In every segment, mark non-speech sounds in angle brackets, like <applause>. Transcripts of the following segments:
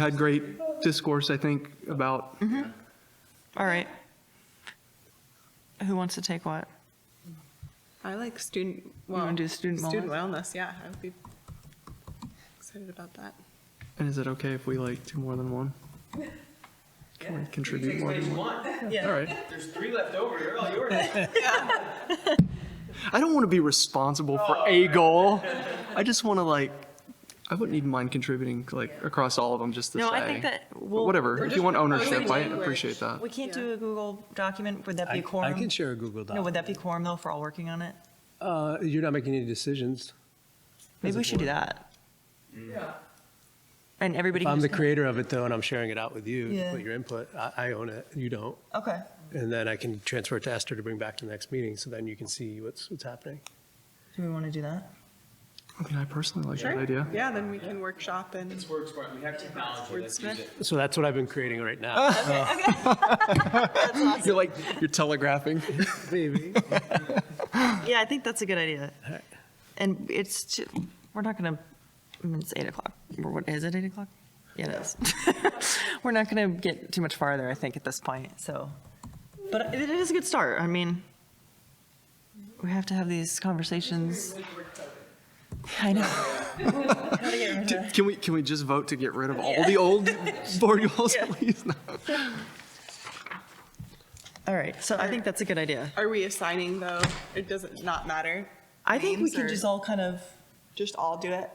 had great discourse, I think, about, All right. Who wants to take what? I like student, well. wanna do student Student wellness, yeah, I would be excited about that. and is it okay if we like do more than one? Can we contribute more than one? All right. There's three left over. They're all yours. <laughs> I don't want to be responsible for Oh. a goal. I just want to like, I wouldn't even mind contributing like across all of them just to say. No, I think that But we'll. Whatever, if you want ownership, I language. appreciate that. We can't Yeah. do a Google document. Would that be a Uh, I- quorum? I can share a Google Doc. No, would that be quorum though for all working on it? Uh, You're not making any decisions. Maybe we should do that. Yeah. And everybody. If can I'm the just- creator of it, though, and I'm sharing it out with you, Yeah. with your input, I I own it, you don't. Okay. And then I can transfer it to Esther to bring back to the next meeting, so then you can see what's, what's happening. Do we want to do that? I mean, I personally like that idea. Yeah, then we can workshop and, It's works smart. We have technology. Let's use it. So that's what I've been creating right now. You're like, you're telegraphing. Maybe. Yeah, I think that's a good idea. And it's, ju- we're not going to, I mean, it's eight o'clock. Or what, is it eight o'clock? Yeah, it is. <laughs> We're not going to get too much farther, I think, at this point, so. But it is a good start. I mean, we have to have these conversations. I know. <laughs> Can we, can we just vote to get rid of all the old board goals, please? <laughs> No. All right, so I think that's a good idea. are we assigning though? It doesn't, not matter, I think we Names can or- just all kind of, just all do it?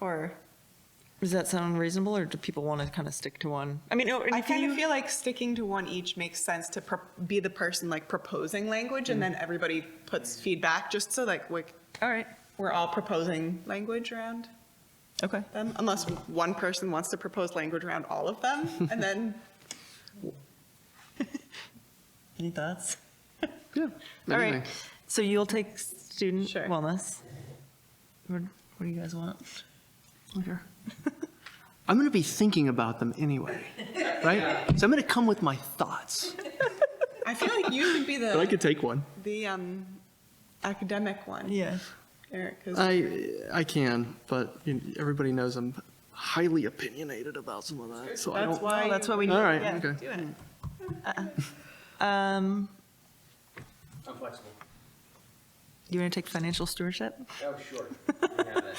Or, does that sound reasonable, or do people want to kind of stick to one? I mean, or- I and do kind of you- feel like sticking to one each makes sense to pro- be the person like proposing language and then everybody puts feedback, just so like we're, all right, we're all proposing language around okay. them, unless one person wants to propose language around all of them, and then Any thoughts? Yeah. All anything. right, so you'll take student Sure. wellness. What what do you guys want? Liquor. I'm going to be thinking about them anyway, right? So I'm going to come with my thoughts. I feel like you would be the. take one. the um, academic one, Yeah. Eric. 'cause- I I can, but you- everybody knows I'm highly opinionated about some of that, so I that's don't. why. Well, that's you- what we need. All right, yeah. okay. Do it. Um, I'm flexible. you want to take financial stewardship? Oh, <laughs> sure. We have it.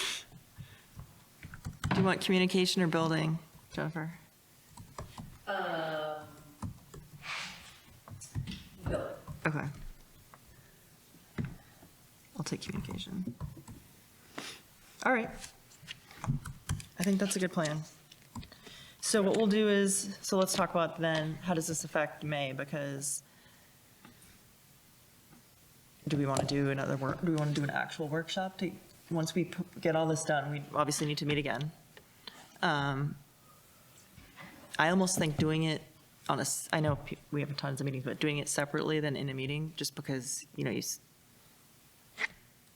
Do you want communication or building, Jennifer? Uh, Okay. I'll take communication. All right. I think that's a good plan. So what we'll do is, so let's talk about then, how does this affect May? Because do we want to do another work, do we want to do an actual workshop to, once we p- get all this done, we obviously need to meet again. Um, I almost think doing it on a, s- I know pe- we have tons of meetings, but doing it separately than in a meeting, just because, you know, you, s-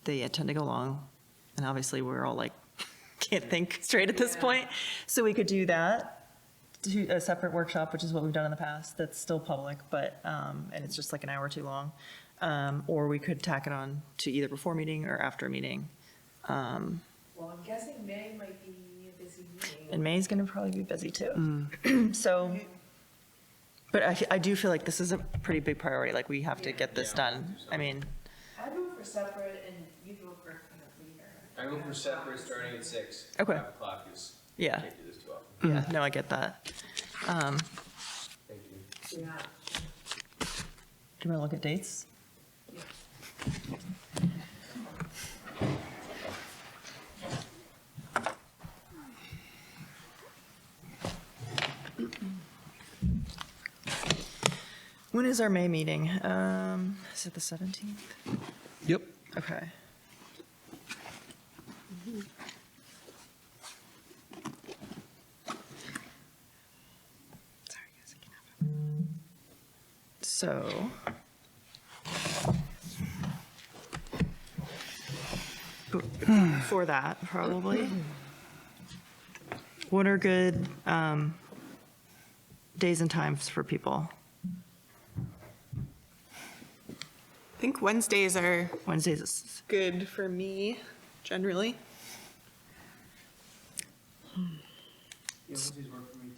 they uh, tend to go long, and obviously we're all like, <laughs> can't think straight at this point. So we could do that, to a separate workshop, which is what we've done in the past, that's still public, but, um, and it's just like an hour too long. Um, or we could tack it on to either before meeting or after meeting. Well, I'm guessing May might be a busy meeting. And May's going to probably be busy too. <clears throat> So, but I, I do feel like this is a pretty big priority, like we have to get this done. I mean, I vote for separate and you vote for kind of leader. I go for separate starting at six. Okay. Five o'clock is. Yeah. Can't do this too often. yeah, no, I get that. Um, Thank you. Yeah. Do you want to look at dates? When is our May meeting? Um, Is it the 17th? Yep. Okay. Sorry, guys, I can't- So. For that, probably. What are good um, days and times for people? I think Wednesdays are Wednesdays, is- good for me generally. Yeah, Wednesdays work for me.